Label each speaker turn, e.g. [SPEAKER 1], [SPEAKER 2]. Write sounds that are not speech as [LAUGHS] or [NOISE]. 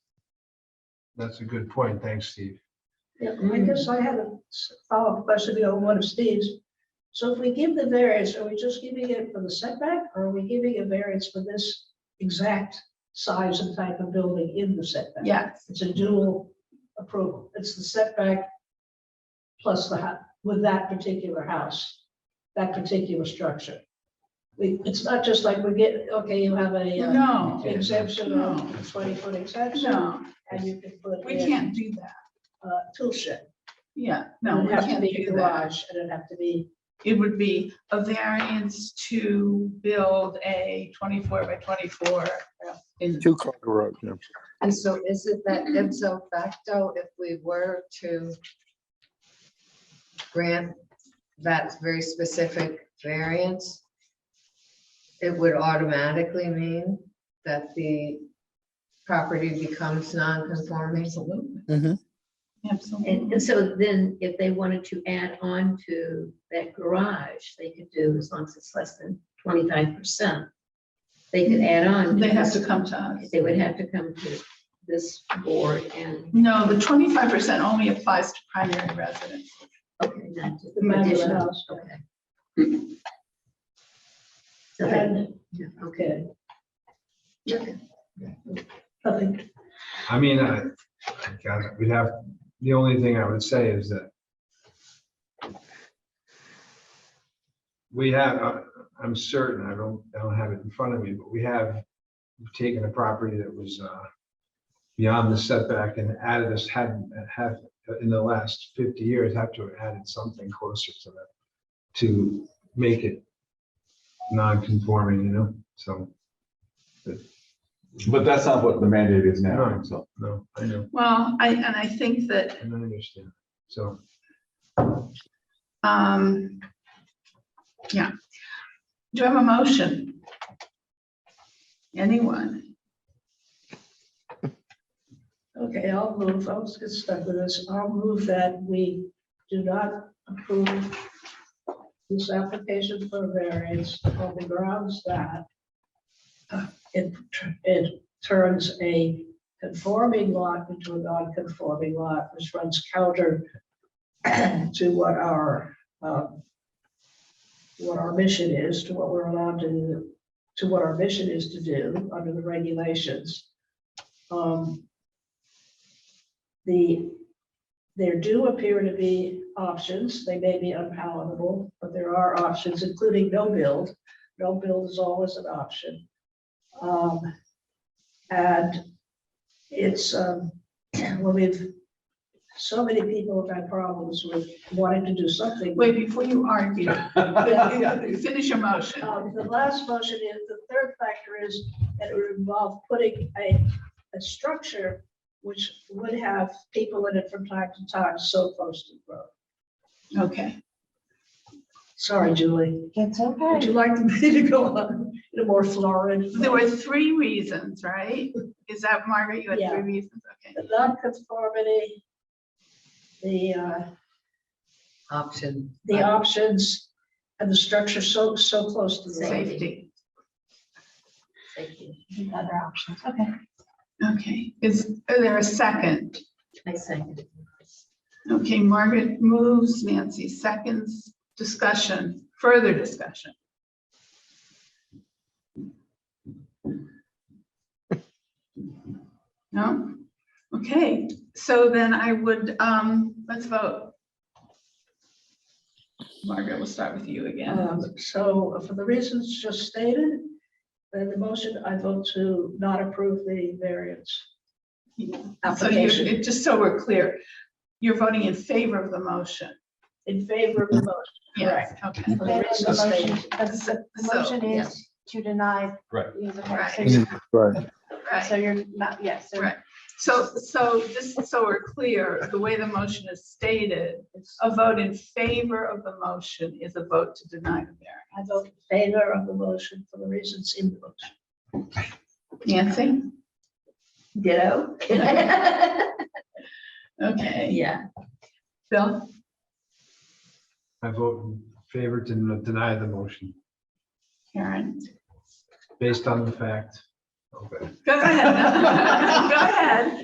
[SPEAKER 1] That's a good point. Thanks, Steve.
[SPEAKER 2] Yeah, I guess I have a s- follow-up question on one of Steve's. So if we give the variance, are we just giving it for the setback, or are we giving a variance for this exact size and type of building in the setback?
[SPEAKER 3] Yes,
[SPEAKER 2] It's a dual approval. It's the setback plus the, hou- with that particular house, that particular structure. We, it's not just like we get, okay, you have a uh,
[SPEAKER 3] no,
[SPEAKER 2] exemption,
[SPEAKER 3] No.
[SPEAKER 2] a twenty-foot exemption,
[SPEAKER 3] no,
[SPEAKER 2] and you can put
[SPEAKER 3] we
[SPEAKER 2] in
[SPEAKER 3] can't do that.
[SPEAKER 2] a tool shed.
[SPEAKER 3] Yeah, no,
[SPEAKER 2] It'd
[SPEAKER 3] we
[SPEAKER 2] have to
[SPEAKER 3] can't
[SPEAKER 2] be a
[SPEAKER 3] do that.
[SPEAKER 2] garage and it'd have to be,
[SPEAKER 3] It would be a variance to build a twenty-four by twenty-four in
[SPEAKER 4] Two car garage, yeah.
[SPEAKER 5] And so is it that ipso facto, if we were to grant that very specific variance, it would automatically mean that the property becomes non-conforming?
[SPEAKER 3] Absolutely.
[SPEAKER 4] Mhm.
[SPEAKER 6] And,
[SPEAKER 3] Absolutely.
[SPEAKER 6] and so then if they wanted to add on to that garage, they could do as long as it's less than twenty-five percent. They could add on.
[SPEAKER 3] They have to
[SPEAKER 6] this.
[SPEAKER 3] come to us.
[SPEAKER 6] They would have to come to this board and,
[SPEAKER 3] No, the twenty-five percent only applies to primary residence.
[SPEAKER 6] okay, not to
[SPEAKER 2] The modular
[SPEAKER 6] additional,
[SPEAKER 2] house.
[SPEAKER 6] okay. So that,
[SPEAKER 2] and,
[SPEAKER 6] yeah, okay.
[SPEAKER 2] okay.
[SPEAKER 6] Okay.
[SPEAKER 2] Nothing,
[SPEAKER 1] I mean, I, I guess we'd have, the only thing I would say is that we have, uh, I'm certain, I don't, I don't have it in front of me, but we have taken a property that was uh, beyond the setback and added this, had, have, in the last fifty years, have to have added something closer to that to make it non-conforming, you know, so,
[SPEAKER 7] But that's not what the mandate is now,
[SPEAKER 1] No.
[SPEAKER 7] so.
[SPEAKER 1] no, I know,
[SPEAKER 3] Well, I, and I think that
[SPEAKER 1] I understand, so.
[SPEAKER 3] Um, yeah. Do I have a motion? Anyone?
[SPEAKER 2] okay, I'll move, I'll just get stuck with this, I'll move that we do not approve this application for variance on the grounds that uh, it, tr- it turns a conforming lot into a non-conforming lot, which runs counter to what our, um, what our mission is, to what we're allowed to, to what our mission is to do under the regulations. Um, The, there do appear to be options. They may be unpalatable, but there are options, including no build. No build is always an option. Um, And it's, um, [CLEARS THROAT] well, we've, so many people have had problems with wanting to do something.
[SPEAKER 3] Wait, before you argue,
[SPEAKER 7] [LAUGHS]
[SPEAKER 3] finish your motion.
[SPEAKER 2] Um, The last motion is, the third factor is that it would involve putting a, a structure which would have people in it from time to time, so close to the road.
[SPEAKER 3] Okay,
[SPEAKER 2] Sorry, Julie.
[SPEAKER 5] It's
[SPEAKER 2] Would you like me to go on in a more florid?
[SPEAKER 3] there were three reasons, right? Is that Margaret? You had
[SPEAKER 2] Yeah.
[SPEAKER 3] three reasons, okay.
[SPEAKER 2] The non-conformity, the, uh,
[SPEAKER 5] Option.
[SPEAKER 2] the options and the structure so, so close to the road.
[SPEAKER 3] Safety,
[SPEAKER 6] Thank you.
[SPEAKER 5] Other options, okay.
[SPEAKER 3] okay. Is are there a second?
[SPEAKER 6] I second.
[SPEAKER 3] Okay, Margaret moves, Nancy seconds, discussion, further discussion. No? Okay, so then I would, um, let's vote. Margaret, we'll start with you again.
[SPEAKER 2] Um, So for the reasons just stated, then the motion, I vote to not approve the variance
[SPEAKER 3] So you,
[SPEAKER 2] application
[SPEAKER 3] it- just so we're clear, you're voting in favor of the motion.
[SPEAKER 2] in favor of the motion.
[SPEAKER 3] Yes, okay.
[SPEAKER 2] for the reasons stated.
[SPEAKER 3] So,
[SPEAKER 8] Motion is to deny.
[SPEAKER 7] Right.
[SPEAKER 8] use of
[SPEAKER 3] Right.
[SPEAKER 8] conversation.
[SPEAKER 4] Right.
[SPEAKER 3] right.
[SPEAKER 8] So you're not, yes, so
[SPEAKER 3] Right. So, so just so we're clear, the way the motion is stated, a vote in favor of the motion is a vote to deny the variance.
[SPEAKER 2] I vote in favor of the motion for the reasons in the motion.
[SPEAKER 3] Nancy?
[SPEAKER 6] Ditto. [LAUGHS]
[SPEAKER 3] Okay.
[SPEAKER 6] Yeah.
[SPEAKER 3] Bill?
[SPEAKER 1] I vote in favor to n- deny the motion
[SPEAKER 3] Karen?
[SPEAKER 1] based on the fact. Okay.
[SPEAKER 3] [LAUGHS] Go ahead. Go ahead.